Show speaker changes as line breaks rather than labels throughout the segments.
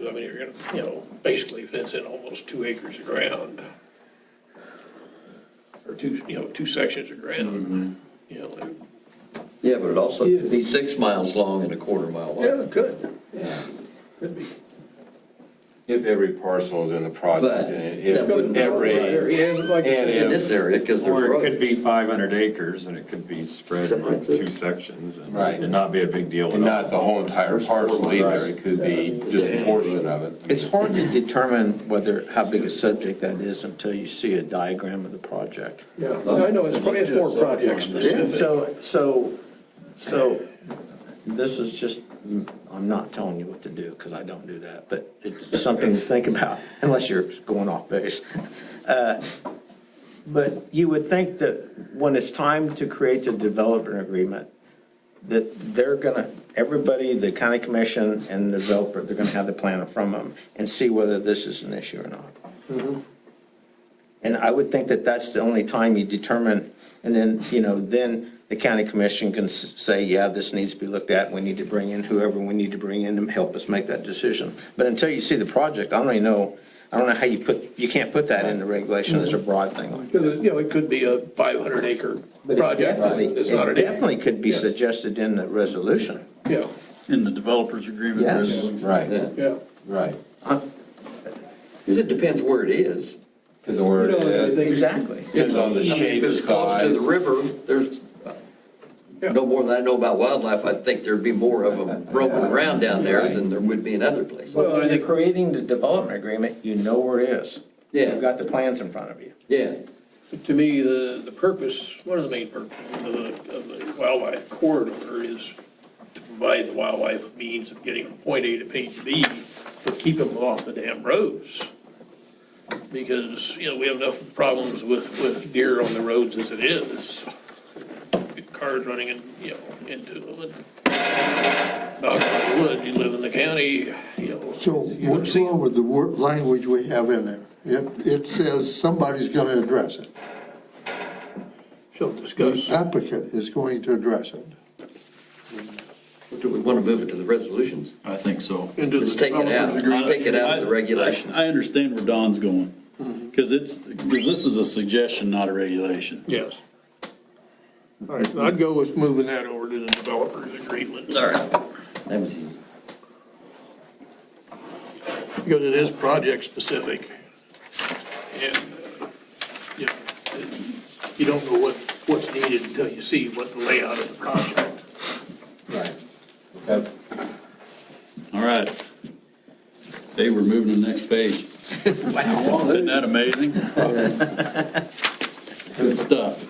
I mean, you're gonna, you know, basically fence in almost two acres of ground. Or two, you know, two sections of
Mm-hmm.
ground, you know. and-
Yeah, but it also could be six miles long and a quarter mile wide.
it could.
Yeah.
Could be.
If every parcel is in the
But
project, and
that
if
wouldn't-
every,
And like I
and
said,
In
if,
this area, because there's
Or
roads.
it could be 500 acres and it could be spread in
Separates it.
two sections. and
Right.
It'd not be a big deal
and
at all.
not the whole entire parcel either, it could be just a portion of it.
It's hard to determine whether, how big a subject that is until you see a diagram of the project.
Yeah, I know, it's probably, it's more project specific.
So, so, so, this is just, I'm not telling you what to do, because I don't do that, but it's something to think about, unless you're going off base. Uh, But you would think that when it's time to create the development agreement, that they're gonna, everybody, the county commission and the developer, they're gonna have the plan in front of them and see whether this is an issue or not. And I would think that that's the only time you determine, and then, you know, then the county commission can s- say, yeah, this needs to be looked at, we need to bring in whoever we need to bring in to help us make that decision. But until you see the project, I don't even know, I don't know how you put, you can't put that into regulation as a broad thing like that.
Because, you know, it could be a five hundred acre project,
Definitely,
it's not
it
an acre,
definitely could be suggested in the resolution.
yeah,
In the developer's agreement.
Yes.
really.
Right,
Yeah,
yeah.
right.
because it depends where it is.
To the word,
You know, I
it
think-
Exactly.
depends on
I
the
mean,
shape,
If it's close to
size.
the river, there's,
Yeah.
no more than I know about wildlife, I think there'd be more of them roaming around down there than there would be in other places.
Well, I
When you're
think-
creating the development agreement, you know where it is. You've
Yeah,
got the plans in front of you.
yeah.
To me, the, the purpose, one of the main purposes of the, of the wildlife corridor is to provide the wildlife a means of getting from point A to point B, but keep them off the damn roads. Because, you know, we have enough problems with, with deer on the roads as it is. Cars running in, you know, into them. and Knock on wood, you live in the county, you know.
So
you're
what's
seeing-
wrong with the word, language we have in there? It, it says somebody's gonna address it.
So
The
discuss.
applicant is going to address it.
Do we want to move it to the resolutions?
I think so.
into the
Let's take it out,
development agreement.
take it out of the regulations.
I I understand where Don's going, because it's, because this is a suggestion, not a regulation.
Yes. All right, so I'd go with moving that over to the developers agreement,
All right. That was easy.
because it is project-specific. And, uh, you know, it- you don't know what, what's needed until you see what the layout of the project.
Right. Okay.
All right. Hey, we're moving to the next page. Wow. Isn't that amazing? Good stuff.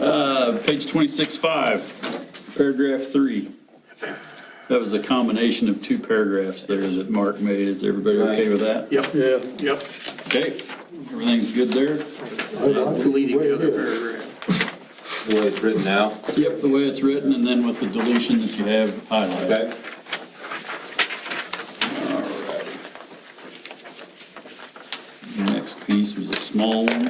Uh, Page 26.5, paragraph 3. That was a combination of two paragraphs there that Mark made. Is everybody okay with that?
Yep, yeah, yep.
Okay, everything's good there?
Deleting
Way it
the other
is.
paragraph.
The way it's written now,
Yep, the way it's written, and then with the deletion that you have highlighted.
okay?
The Next piece was a small one.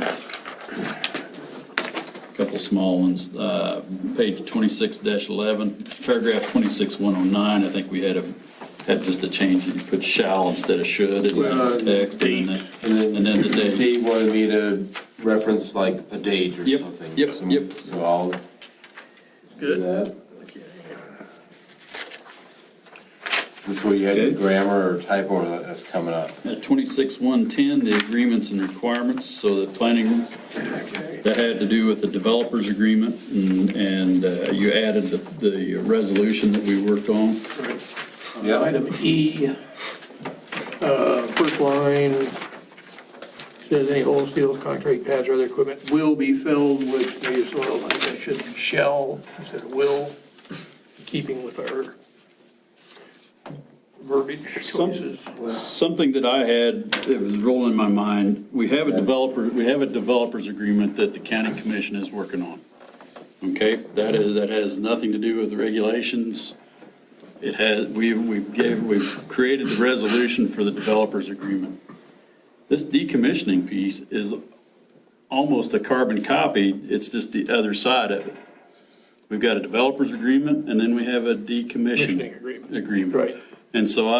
Couple small ones, uh, page twenty-six eleven, paragraph twenty-six one oh nine, I think we had a, had just a change, you put shall instead of should in
Well,
the text, and then, and then the date.
Steve wanted me to reference like a date or
Yep,
something.
yep,
so-
yep.
So I'll do
Good.
that. This way you have the
Okay.
grammar or typo that- that's coming up.
At twenty-six one ten, the agreements and requirements, so that planning, that had to do with the developers agreement, and, and uh, you added the, the resolution that we worked on.
Yeah.
Item E, uh, first line, says any holes, steel, concrete pads or other equipment will be filled with native soil. I think that should be shall instead of will, in keeping with our verbiage
Some-
choices.
Something that I had, that was rolling in my mind, we have a developer, we have a developers agreement that the county commission is working on. Okay, that is, that has nothing to do with the regulations. It has, we, we gave, we've created the resolution for the developers agreement. This decommissioning piece is almost a carbon copy, it's just the other side of it. We've got a developers agreement, and then we have a decommissioning
Commissioning agreement.
agreement.
Right.
And so I